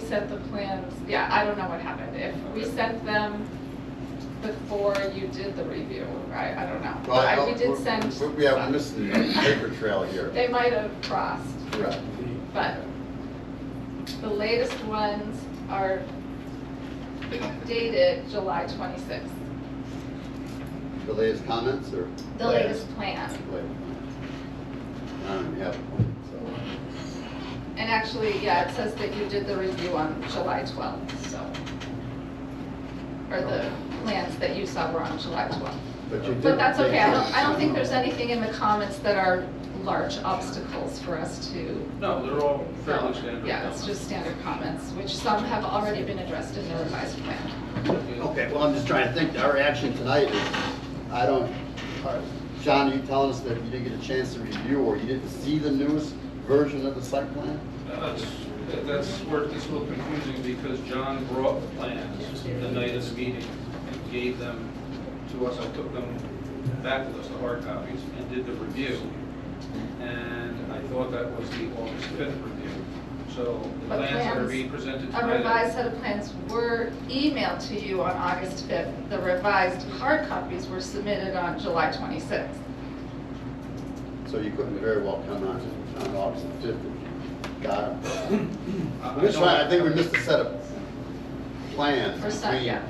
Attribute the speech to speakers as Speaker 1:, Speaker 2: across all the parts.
Speaker 1: sent the plans, yeah, I don't know what happened, if we sent them before you did the review, I, I don't know. But
Speaker 2: Well,
Speaker 1: I- we
Speaker 2: I'll-
Speaker 1: did
Speaker 2: we're-
Speaker 1: send.
Speaker 2: we- We have
Speaker 1: some.
Speaker 2: missed the paper trail here.
Speaker 1: They might have crossed,
Speaker 2: Correct.
Speaker 1: but the latest ones are dated July twenty-sixth,
Speaker 2: The latest comments or?
Speaker 1: the latest plan.
Speaker 2: Wait. I don't even have one, so.
Speaker 1: And actually, yeah, it says that you did the review on July 12th, so. Or the plans that you saw were on July 12th.
Speaker 2: But you did.
Speaker 1: But that's okay, I don't, I don't think there's anything in the comments that are large obstacles for us to.
Speaker 3: No, they're all fairly standard.
Speaker 1: Yeah, it's just standard comments, which some have already been addressed in the revised plan.
Speaker 2: Okay, well, I'm just trying to think, our action tonight is, I don't, are- John, are you telling us that you didn't get a chance to review or you didn't see the newest version of the site plan?
Speaker 3: That's, that's where it gets a little confusing because John brought the plans the night of the meeting and gave them to us. I took them back with us, the hard copies, and did the review. And I thought that was the August 5th review. So the
Speaker 1: But
Speaker 3: plans that are
Speaker 1: plans-
Speaker 3: being presented
Speaker 1: A
Speaker 3: tonight.
Speaker 1: revised set of plans were emailed to you on August 5th. The revised hard copies were submitted on July 26th.
Speaker 2: So you couldn't very well come on, on August fifth. Got it.
Speaker 3: I-
Speaker 2: I'm just
Speaker 3: don't-
Speaker 2: trying, I think we missed a set of plans.
Speaker 1: Or some,
Speaker 2: between
Speaker 1: yeah.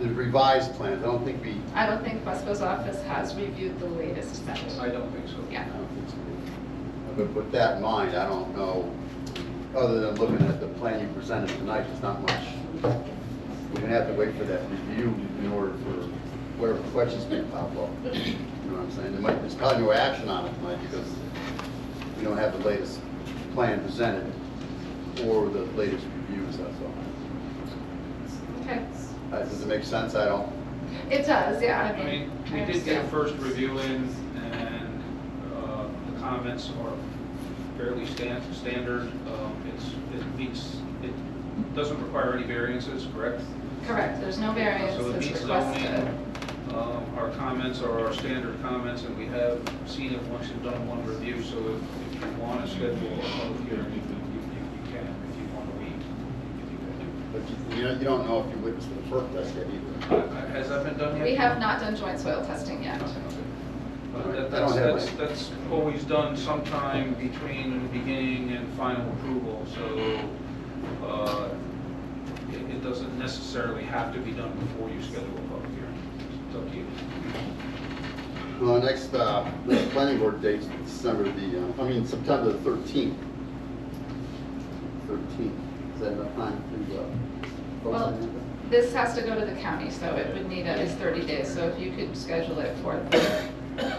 Speaker 2: The revised plans, I don't think we,
Speaker 1: I don't think Wesco's office has reviewed the latest set.
Speaker 3: I don't think so.
Speaker 1: Yeah.
Speaker 2: I don't think so. But with that in mind, I don't know, other than looking at the plan you presented tonight, there's not much. We're gonna have to wait for that review in order for whatever questions may pop up. You know what I'm saying? There might, there's probably no action on it tonight because we don't have the latest plan presented or the latest reviews, that's all.
Speaker 1: Okay.
Speaker 2: Uh, Does it make sense? I don't,
Speaker 1: It does, yeah, I
Speaker 3: I mean,
Speaker 1: mean.
Speaker 3: we
Speaker 1: I
Speaker 3: did get a
Speaker 1: understand.
Speaker 3: first review in, and uh, the comments are fairly stan- standard. Um, It's, it meets, it doesn't require any variances, correct?
Speaker 1: Correct, there's no
Speaker 3: So it
Speaker 1: variances
Speaker 3: meets
Speaker 1: requested.
Speaker 3: zoning. Um, Our comments are our standard comments, and we have seen it once you've done one review, so if if you want to schedule a public hearing, you can, you- you can, if you want to wait. you can
Speaker 2: but you, you don't- you don't know if you witnessed the first test yet either.
Speaker 3: do. Uh, Has that been done yet?
Speaker 1: We have not done joint soil testing yet.
Speaker 3: But that- That's, that's, that's always done sometime between the beginning and final approval, so, uh, it, it doesn't necessarily have to be done before you schedule a public hearing. It's up to you.
Speaker 2: Well, the next, uh, the planning board date's December the, uh, I mean, September the thirteenth. Thirteenth, is that enough time to, uh? post
Speaker 1: Well,
Speaker 2: it?
Speaker 1: This has to go to the county, so it would need at least 30 days, so if you could schedule it for the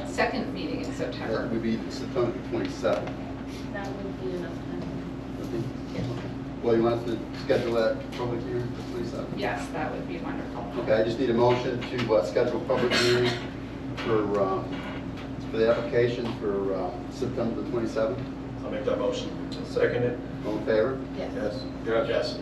Speaker 1: second meeting in
Speaker 2: That
Speaker 1: September.
Speaker 2: would be September the twenty-seventh.
Speaker 4: That would be enough time.
Speaker 2: Well, you want us to schedule that public hearing for twenty-seventh?
Speaker 1: Yes, that would be wonderful.
Speaker 2: Okay, I just need a motion to, uh, schedule a public hearing for, um, for the application for, uh, September the twenty-seventh.
Speaker 5: I'll make that motion. Second it?
Speaker 2: All in favor?
Speaker 4: Yes.
Speaker 5: Yes.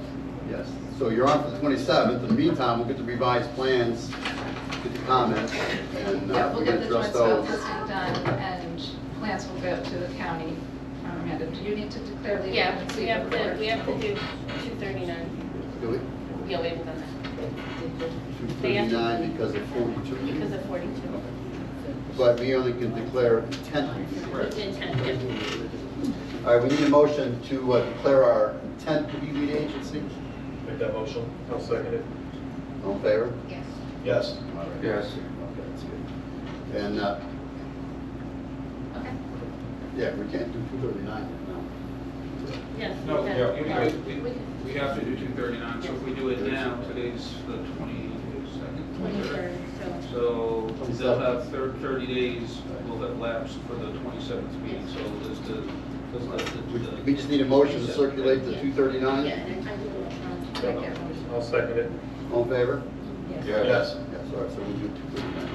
Speaker 2: Yes, so you're on for the 27th, in the meantime, we'll get the revised plans, get the comments, and uh,
Speaker 1: Yeah,
Speaker 2: we're
Speaker 1: we'll
Speaker 2: going
Speaker 1: get
Speaker 2: to
Speaker 1: the joint
Speaker 2: address
Speaker 1: soil
Speaker 2: those.
Speaker 1: testing done, and plans will go to the county. Um, Amanda, do you need to declare the
Speaker 4: Yeah,
Speaker 1: agency?
Speaker 4: we have to,
Speaker 1: before-
Speaker 4: we have to do two thirty-nine.
Speaker 2: Do we?
Speaker 4: Yeah, we haven't done that. They have to-
Speaker 2: 239 because of 42.
Speaker 4: Because of forty-two.
Speaker 2: But we only can declare 10.
Speaker 4: We did ten, yeah.
Speaker 2: All right, we need a motion to uh, declare our intent to be lead agency.
Speaker 5: Make that motion. I'll second it.
Speaker 2: All in favor?
Speaker 1: Yes.
Speaker 5: Yes.
Speaker 3: Yes.
Speaker 2: Okay, that's good. And, uh,
Speaker 1: Okay.
Speaker 2: yeah, we can't do 239 now.
Speaker 4: Yes.
Speaker 3: No,
Speaker 4: we
Speaker 3: yeah,
Speaker 4: have-
Speaker 3: we,
Speaker 4: we-
Speaker 3: we- we have to do two thirty-nine, so if we do it now, today's the twenty-second,
Speaker 4: Twenty-third, so.
Speaker 3: So they'll have thir- thirty days will have lapsed for the twenty-seventh meeting, so does the, does the-
Speaker 2: We-
Speaker 3: the.
Speaker 2: We just need a motion to circulate the
Speaker 4: Yeah.
Speaker 2: 239.
Speaker 4: Yeah, and I will, um,
Speaker 1: Thank you.
Speaker 5: I'll second it.
Speaker 2: All in favor?
Speaker 4: Yes.
Speaker 2: Yes. Yes, all right, so we do 239.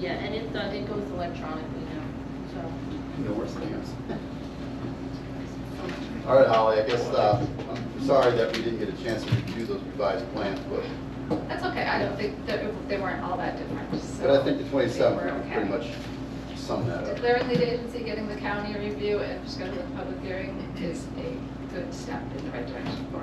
Speaker 4: Yeah, and it, uh, it goes electronically now, so.
Speaker 2: No worse things. All right, Holly, I guess, uh, I'm sorry that we didn't get a chance to review those revised plans, but,
Speaker 1: That's okay, I don't think, that it- they weren't all that different, so.
Speaker 2: but I think the
Speaker 1: I
Speaker 2: 27th
Speaker 1: think
Speaker 2: would
Speaker 1: we're
Speaker 2: pretty
Speaker 1: okay.
Speaker 2: much sum that up.
Speaker 1: Declaring lead agency, getting the county review, and scheduling a public hearing is a good step in the right direction for us.